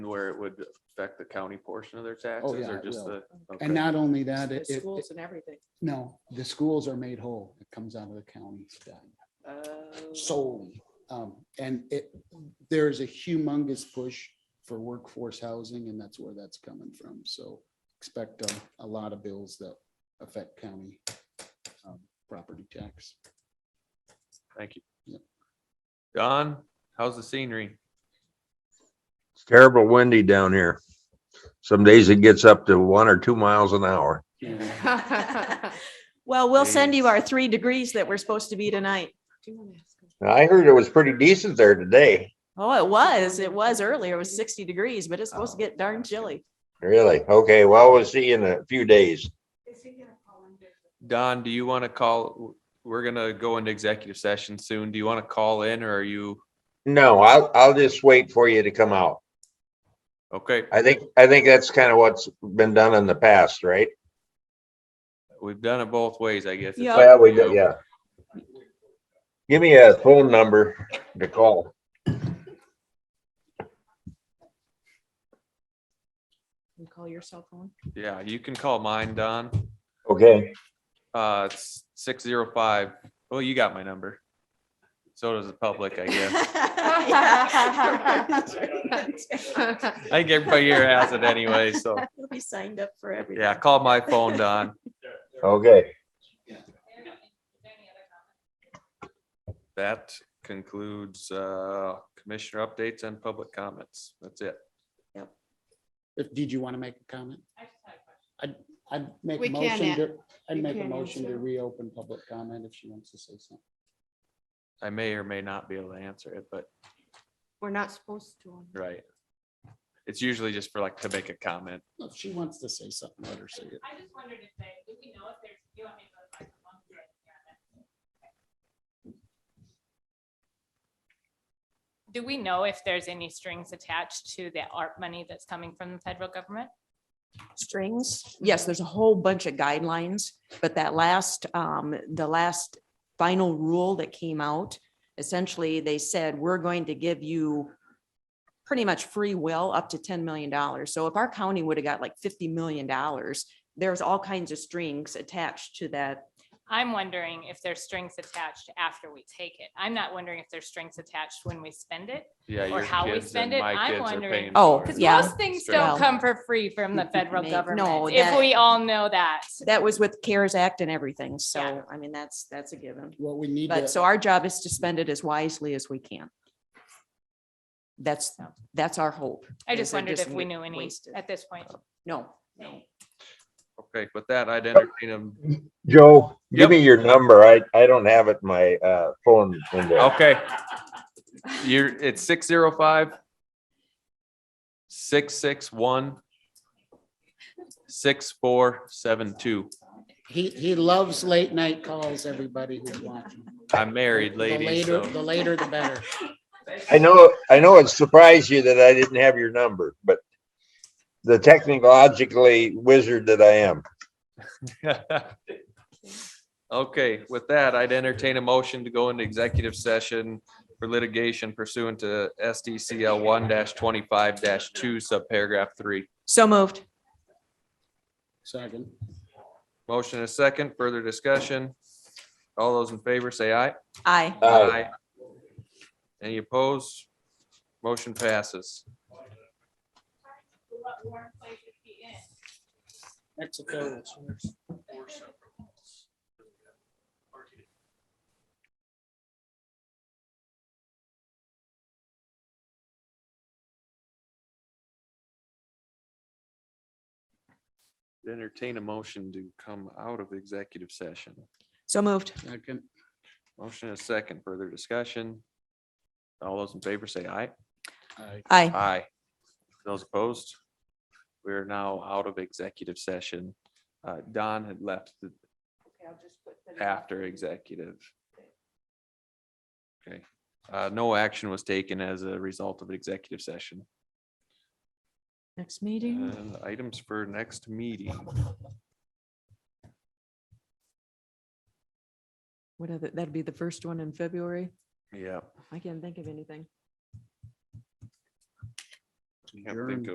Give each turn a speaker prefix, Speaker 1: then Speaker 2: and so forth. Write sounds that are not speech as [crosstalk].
Speaker 1: where it would affect the county portion of their
Speaker 2: Oh,
Speaker 1: taxes
Speaker 2: yeah,
Speaker 1: or
Speaker 2: it
Speaker 1: just the?
Speaker 2: will.
Speaker 1: okay.
Speaker 2: And not only that, it,
Speaker 3: The
Speaker 2: it,
Speaker 3: schools and everything.
Speaker 2: no, the schools are made whole. It comes out of the county
Speaker 3: Oh.
Speaker 2: solely. Um, and it, there's a humongous push for workforce housing and that's where that's coming from. So expect a, a lot of bills that affect county um, property tax.
Speaker 1: Thank you.
Speaker 2: Yeah.
Speaker 1: Don, how's the
Speaker 2: [laughs]
Speaker 1: scenery?
Speaker 4: It's terrible windy down here. Some days it gets up to one or two miles an hour.
Speaker 2: Yeah.
Speaker 5: Oh. [laughs] Well, we'll send you our three degrees that we're supposed to be tonight.
Speaker 3: Do you want to ask him?
Speaker 4: I heard it was pretty decent there today.
Speaker 5: Oh, it was, it was earlier, it was sixty degrees, but it's supposed to
Speaker 3: Oh,
Speaker 5: get darn chilly.
Speaker 4: Really? Okay, well, we'll see you in a few days.
Speaker 1: Don, do you want to call, we're gonna go into executive session soon. Do you want to call in or are you?
Speaker 4: No, I'll, I'll just wait for you to come out.
Speaker 1: Okay,
Speaker 4: I think, I think that's kind of what's been done in the past, right?
Speaker 1: we've done it both ways, I guess. It's
Speaker 5: Yeah.
Speaker 1: up
Speaker 4: Well, we,
Speaker 1: to you.
Speaker 4: yeah. Give me a phone number to call.
Speaker 3: You Call your cell phone.
Speaker 1: Yeah, you can call mine, Don.
Speaker 4: Okay.
Speaker 1: Uh, it's six zero five. Well, you got my number. So does the public, I
Speaker 5: [laughs]
Speaker 1: guess. I think everybody here has it anyway, so
Speaker 5: We signed up for everything.
Speaker 1: yeah, call my phone, Don.
Speaker 4: Okay.
Speaker 1: That concludes uh commissioner updates and public comments. That's it.
Speaker 2: If, did you want to make a comment? I'd, I'd make
Speaker 6: We
Speaker 2: a
Speaker 6: can
Speaker 2: motion
Speaker 6: a-
Speaker 2: to, I'd
Speaker 6: we
Speaker 2: make a
Speaker 6: can
Speaker 2: motion to
Speaker 6: answer.
Speaker 2: reopen public comment if she wants to say something.
Speaker 1: I may or may not be able to answer it, but
Speaker 6: We're not supposed to.
Speaker 1: right. It's usually just for like to make a comment.
Speaker 2: If she wants to say something, let her say it.
Speaker 7: I just wondered if they, do we know if there's, do you want me to go to like one? Do we know if there's any strings attached to the art money that's coming from the federal government?
Speaker 5: strings. Yes, there's a whole bunch of guidelines, but that last, um, the last final rule that came out, essentially, they said, we're going to give you pretty much free will up to ten million dollars. So if our county would have got like fifty million dollars, there's all kinds of strings attached to that.
Speaker 7: I'm wondering if there's strings attached after we take it. I'm not wondering if there's strings attached when we spend it.
Speaker 1: Yeah.
Speaker 7: Or
Speaker 1: your
Speaker 7: how we
Speaker 1: kids and
Speaker 7: spend it,
Speaker 1: my
Speaker 7: I'm
Speaker 1: kids are
Speaker 7: wondering.
Speaker 1: paying
Speaker 5: Oh,
Speaker 1: for it.
Speaker 7: Because
Speaker 5: Yeah.
Speaker 7: most things
Speaker 1: Strings.
Speaker 7: don't come for free from
Speaker 5: [laughs]
Speaker 7: the federal
Speaker 5: No,
Speaker 7: government,
Speaker 5: that-
Speaker 7: if we all know that.
Speaker 5: That was with CARES Act and everything. So,
Speaker 7: Yeah.
Speaker 5: I mean, that's, that's a given.
Speaker 2: What we need
Speaker 5: But so
Speaker 2: to,
Speaker 5: our job is to spend it as wisely as we can. That's, that's our hope.
Speaker 7: I
Speaker 5: is
Speaker 7: just
Speaker 5: they're
Speaker 7: wondered if we
Speaker 5: wa-
Speaker 7: knew any
Speaker 5: wasted.
Speaker 7: at this point.
Speaker 5: No,
Speaker 1: Okay, with that, I'd entertain them.
Speaker 4: Joe,
Speaker 1: Yep.
Speaker 4: give me your number. I, I don't have it in my, uh, phone in there.
Speaker 1: Okay. You're, it's six zero five. Six six one. Six four seven two.
Speaker 2: he, he loves late night calls, everybody who's watching.
Speaker 1: I'm married,
Speaker 2: The
Speaker 1: lady,
Speaker 2: later-
Speaker 1: so
Speaker 2: The later, the better.
Speaker 4: I know, I know it surprised you that I didn't have your number, but the technologically wizard that I am.
Speaker 1: [laughs] Okay, with that, I'd entertain a motion to go into executive session for litigation pursuant to SDCL one twenty-five two, subparagraph three.
Speaker 5: so moved.
Speaker 2: Second.
Speaker 1: Motion and a second, further discussion. All those in favor say aye.
Speaker 5: Aye.
Speaker 4: Uh,
Speaker 1: Any opposed? Motion passes.
Speaker 7: What warm place would be in?
Speaker 2: Mexico.
Speaker 1: Entertain a motion to come out of executive session.
Speaker 5: So moved.
Speaker 2: Second.
Speaker 1: Motion and a second, further discussion. All those in favor say aye.
Speaker 2: Aye.
Speaker 5: Aye.
Speaker 1: Aye. Those opposed? We're now out of executive session. Uh, Don had left the- after executive. Okay, uh, no action was taken as a result of executive session.
Speaker 5: Next meeting.
Speaker 1: And items for next meeting.
Speaker 5: What other, that'd be the first one in February.
Speaker 1: Yeah.
Speaker 5: I can't think of anything.
Speaker 1: adjourn.